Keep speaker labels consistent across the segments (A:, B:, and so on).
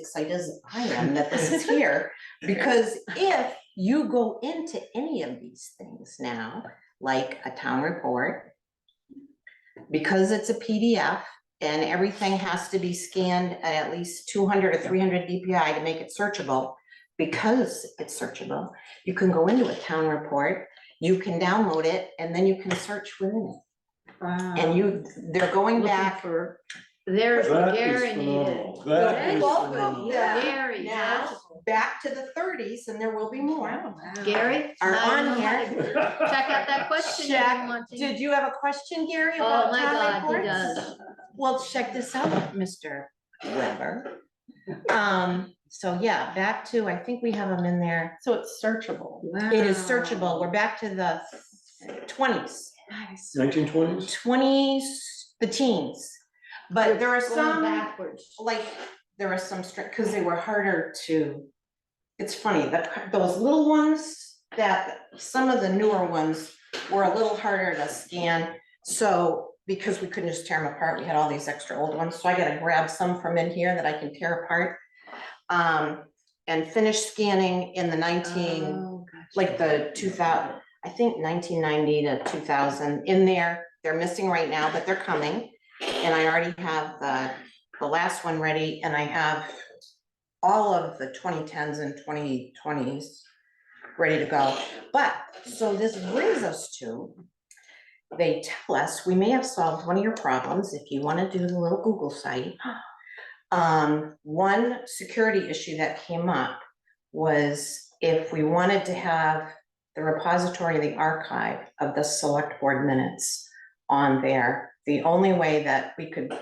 A: excited as I am that this is here, because if you go into any of these things now, like a town report, because it's a PDF and everything has to be scanned at at least two hundred or three hundred DPI to make it searchable, because it's searchable, you can go into a town report, you can download it, and then you can search within it. And you, they're going
B: Um, Looking
A: back
B: for- There's the
C: That is
B: Garanted.
C: phenomenal. That
A: Okay.
C: is
A: Welcome.
B: Oh,
C: phenomenal.
A: Yeah.
B: Gary,
A: Now, back to the thirties, and there will be more.
B: Gary.
A: Are
B: I don't
A: on
B: know how to- Check out that question if
A: Check.
B: you want to.
A: Did you have a question, Gary,
B: Oh,
A: about
B: my
A: town
B: God, he
A: reports?
B: does.
A: Well, check this out, Mr. Weber. Um, so yeah, back to, I think we have them in there.
D: So it's searchable.
A: It is searchable. We're back to the twenties,
D: Nice.
C: Nineteen twenties?
A: twenties, the teens. But there are
B: Going
A: some,
B: Backwards.
A: like, there are some strict, because they were harder to. It's funny, that those little ones, that some of the newer ones were a little harder to scan. So because we couldn't just tear them apart, we had all these extra old ones, so I gotta grab some from in here that I can tear apart. Um, and finish scanning in the nineteen,
B: Oh, gotcha.
A: like the two thousand, I think nineteen ninety to two thousand in there. They're missing right now, but they're coming. And I already have the, the last one ready and I have all of the twenty tens and twenty twenties ready to go. But, so this brings us to, they tell us, we may have solved one of your problems if you want to do the little Google site. Um, one security issue that came up was if we wanted to have the repository, the archive of the select board minutes on there, the only way that we could,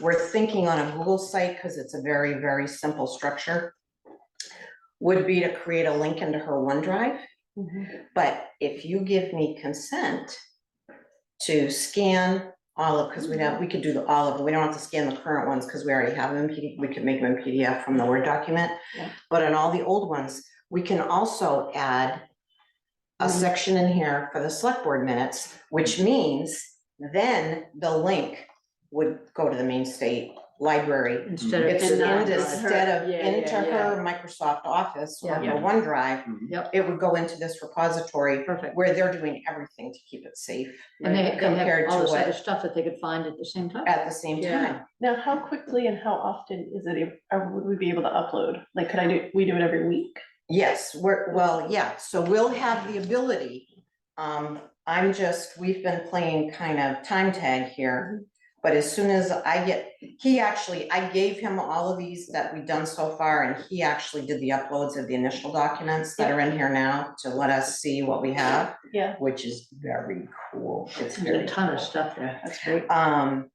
A: we're thinking on a Google site, because it's a very, very simple structure, would be to create a link into her OneDrive.
B: Mm-hmm.
A: But if you give me consent to scan all of, because we don't, we could do the, all of, them. we don't have to scan the current ones because we already have them in PDF, we could make them in PDF from the Word document.
D: Yeah.
A: But on all the old ones, we can also add a
D: Mhm.
A: section in here for the select board minutes, which means then the link would go to the main state library.
B: Instead of.
A: It's
B: and not
A: into-
B: her.
A: instead of
D: Yeah, yeah,
A: into
D: yeah.
A: her Microsoft Office or
B: Yeah.
A: her OneDrive,
B: Yep,
A: it would go into this repository
B: perfect.
A: where they're doing everything to keep it safe
B: And they, they
A: compared
B: have all
A: to
B: this
A: what-
B: other stuff that they could find at the same time.
A: at the same
B: Yeah.
A: time.
D: Now, how quickly and how often is it, ab- or would we be able to upload? Like, could I do, we do it every week?
A: Yes, we're, well, yeah, so we'll have the ability. Um, I'm just, we've been playing kind of time tag here. But as soon as I get, he actually, I gave him all of these that we've done so far and he actually did the uploads of the initial documents that are in here now to let us see what we have.
D: Yeah.
A: Which is very cool. It's very
B: There's a ton
A: cool.
B: of stuff there.
D: That's great.
A: um,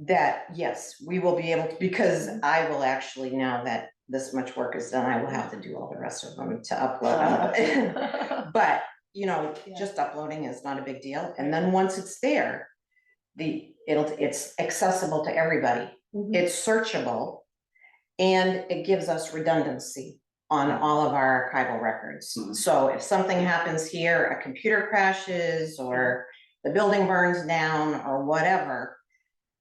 A: that, yes, we will be able to, because I will actually, now that this much work is done, I will have to do all the rest of them to
D: Uh,
A: upload. But, you know,
D: Yeah.
A: just uploading is not a big deal, and then once it's there, the, it'll, it's accessible to everybody,
D: Mhm.
A: it's searchable, and it gives us redundancy on all of our archival records.
C: Mhm.
A: So if something happens here, a computer crashes, or the building burns down, or whatever,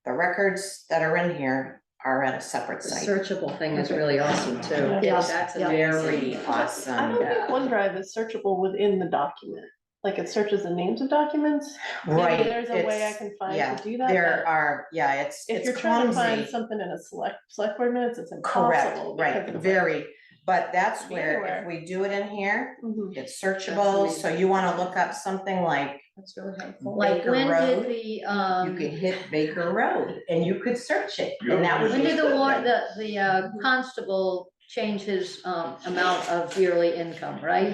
A: the records that are in here are at a separate
E: The
A: site.
E: searchable thing is really awesome too.
B: Yes,
E: That's a
B: yeah.
A: Very
E: very,
D: I
A: awesome,
D: don't think OneDrive is searchable within the document. Like, it searches the names of documents. Maybe
A: right?
D: There's a way I
A: it's-
D: can find
A: yeah,
D: to do that.
A: There
D: but
A: are, yeah, it's,
D: If
A: it's
D: you're trying to find
A: clumsy.
D: something in a select, select board minutes, it's
A: Correct,
D: impossible.
A: right,
D: because it's like-
A: very, but that's where, if
D: Anywhere.
A: we do it in here,
D: Mhm.
A: it's searchable, so you wanna look up something like,
E: that's really helpful.
B: Like
A: Baker
B: when
A: Road,
B: did the,
A: you
B: um,
A: could hit Baker Road, and you could search it, and that would
B: when
A: be.
B: did the war,
A: something.
B: the, the uh, constable change his, um, amount of yearly income, right?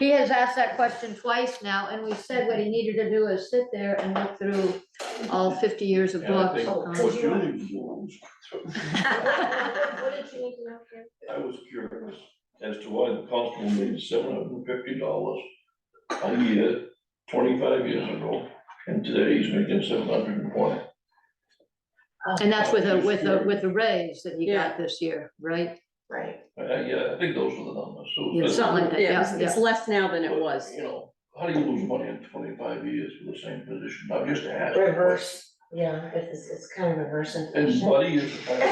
B: He has asked that question twice now, and we said what he needed to do is sit there and look through all fifty years of books. um,
F: I was curious as to why the constable made seven hundred and fifty dollars a year twenty-five years ago, and today he's making seven hundred and twenty.
B: And that's with a, with a, with a raise that he got this year, right?
A: Right,
F: Uh, yeah, I think those are the numbers, so.
B: Yeah, Something like that,
E: Yeah,
B: yeah,
E: it's-
B: yeah.
E: it's less now than it was.
F: You know, how do you lose money in twenty-five years for the same position? I'm just asking.
E: Reverse.
G: Yeah, it's, it's kind of reverse
E: And
G: inflation.
E: Buddy is the type of